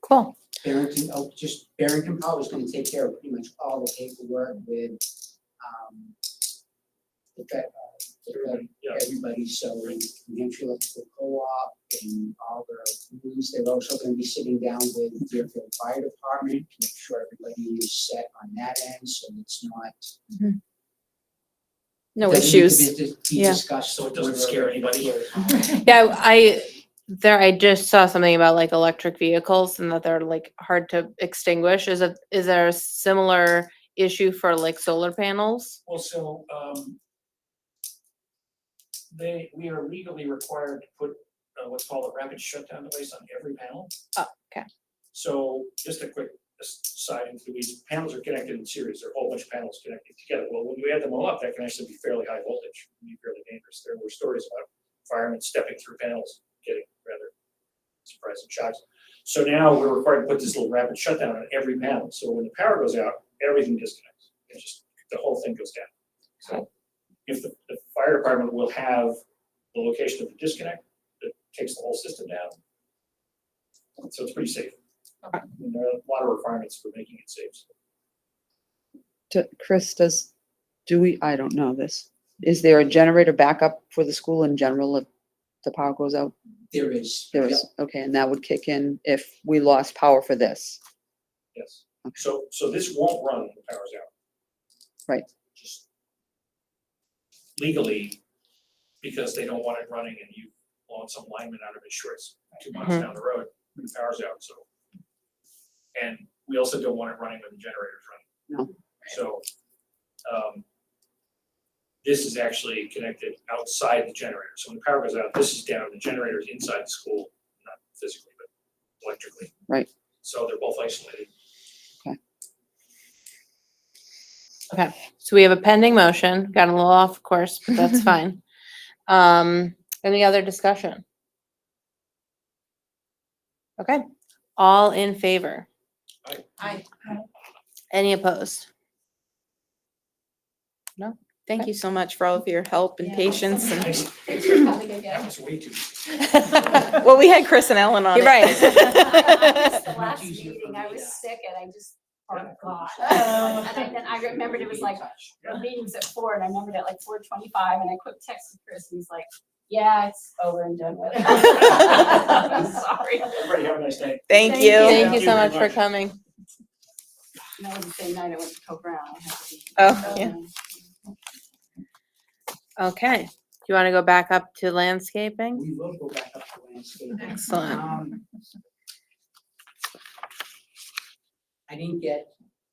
Cool. Barrington, oh, just Barrington Power is gonna take care of pretty much all the paperwork with, um, the, fe- uh, the fe- Yeah, everybody, so in New Hampshire Electrical Co-op and all the rules, they're also gonna be sitting down with Deerfield Fire Department to make sure everybody is set on that end, so it's not. No doesn't need to issues. Be dis- be Yeah. discussed. So it doesn't scare anybody. Yeah, I, there, I just saw something about like electric vehicles and that they're like hard to extinguish. Is it, is there a similar issue for like solar panels? well, so, um, they, we are legally required to put uh, what's called a rapid shutdown device on every panel. Oh, okay. So just a quick aside, into the weeds, panels are connected in series, there are a whole bunch of panels connected together. Well, when you add them all up, that can actually be fairly high voltage, can be fairly dangerous. There were stories about firemen stepping through panels, getting rather surprising shocks. So now we're required to put this little rapid shutdown on every panel, so when the power goes out, everything disconnects. It's just, the whole thing goes down. So if the, the fire department will have the location of the disconnect, it takes the whole system down. So it's pretty safe. And there are a lot of requirements for making it safe. to, Chris, does, do we, I don't know this. Is there a generator backup for the school in general if the power goes out? There is. There is, okay, and that would kick in if we lost power for this. Yes. Okay. So, so this won't run when the power's out. Right. Just Legally, because they don't want it running and you want some lineman out of his shorts two miles Mm-hmm. Mhm. down the road when the power's out, so. And we also don't want it running when the generator's running. No. So, um, this is actually connected outside the generator. So when the power goes out, this is down, the generator's inside the school, not physically, but electrically. Right. So they're both isolated. So we have a pending motion, got a little off course, but that's fine. Um, any other discussion? Okay, all in favor? Aye. Aye. Any opposed? Thank you so much for all of your help and Yeah. patience and, Nice. Probably That good, yeah. was way too. well, we had Chris and Ellen on You're it. I missed The last Much easier for meeting, me I to- was sick and I just forgot. Oh. And Oh, I- then I remembered it was like, the meeting's at four and I remembered at like four twenty-five and I quick texted Chris and he's like, yeah, it's over and done with. I'm sorry. Everybody have a nice day. Thank Thank you. you. Thank you so much for coming. And that was the same night I went to Co Brown. I had to be- Oh, yeah. Okay, do you want to go back up to landscaping? We will go back up to landscaping. Excellent. Um, I didn't get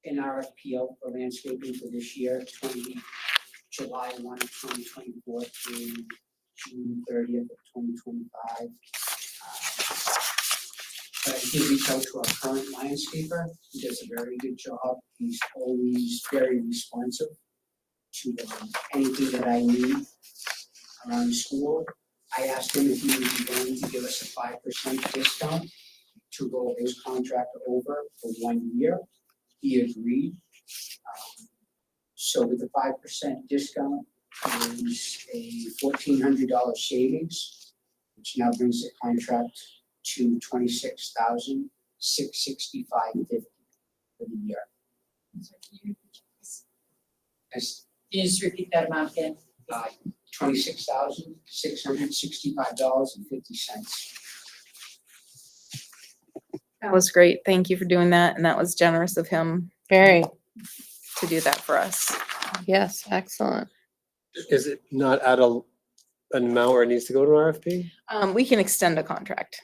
an RFP out for landscaping for this year, twenty, July one of twenty twenty-four through June thirtieth of twenty twenty-five. Uh, But I did reach out to our current landscaper, he does a very good job, he's always very responsive to um, anything that I need around the school. I asked him if he would be willing to give us a five percent discount to roll his contract over for one year. He agreed. Um, So with the five percent discount is a fourteen hundred dollar savings, which now brings the contract to twenty-six thousand six sixty-five fifty for the year. That's Can you just repeat that amount again? twenty-six thousand six hundred sixty-five dollars and fifty cents. That was great. Thank you for doing that. And that was generous of him Very, to do that for us. yes, excellent. Is it not at a, an amount where it needs to go to an RFP? Um, we can extend a contract.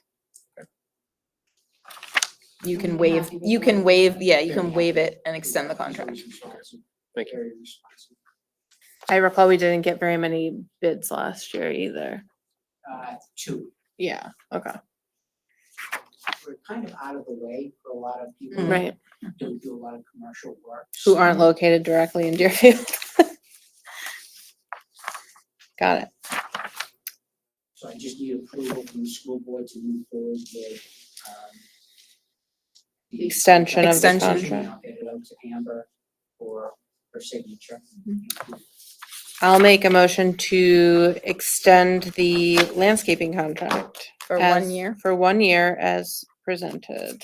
You can I'm waive, happy with you that. can waive, yeah, you can waive it and extend the contract. Thank you. Very responsive. I recall we didn't get very many bids last year either. uh, two. Yeah, okay. Mm-hmm. We're kind of out of the way for a lot of people. that Mm. Right, Don't do a lot of commercial work. who aren't located directly in Deerfield. Got it. So I just need approval from the school board to move forward with, um. the Extension of the contract. I'll get it out to Amber for her signature. I'll make a motion to extend the landscaping contract. For one as- year? For one year as presented.